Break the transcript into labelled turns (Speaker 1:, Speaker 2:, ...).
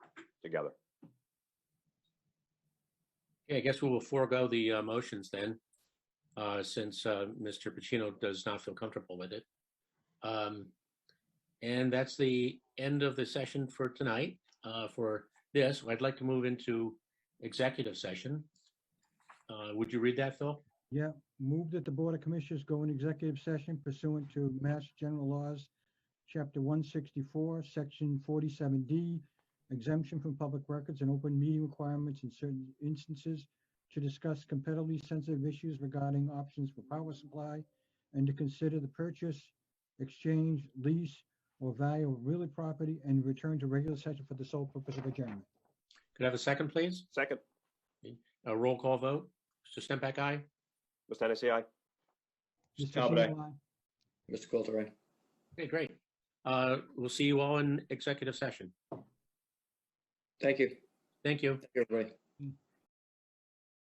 Speaker 1: together.
Speaker 2: Okay, I guess we will forego the uh, motions then, uh, since uh, Mr. Pacino does not feel comfortable with it. Um, And that's the end of the session for tonight. Uh, For this, I'd like to move into executive session. Uh, Would you read that, Phil?
Speaker 3: Move that the Board of Commissioners go in executive session pursuant to Mass General Laws, Chapter 164, Section 47D, exemption from public records and open meeting requirements in certain instances to discuss competitively sensitive issues regarding options for power supply and to consider the purchase, exchange, lease, or value of real property and return to regular session for the sole purpose of adjournment.
Speaker 2: Could I have a second, please?
Speaker 1: Second,
Speaker 2: A roll call vote? Mr. Stempak, aye?
Speaker 1: Mr. Hennessy, aye.
Speaker 3: Mr.
Speaker 4: Talbot, aye.
Speaker 3: Singleton, aye.
Speaker 4: Mr. Coulter, aye.
Speaker 2: Okay, great. Uh, We'll see you all in executive session.
Speaker 4: Thank you.
Speaker 2: Thank you.
Speaker 4: Thank you, everybody.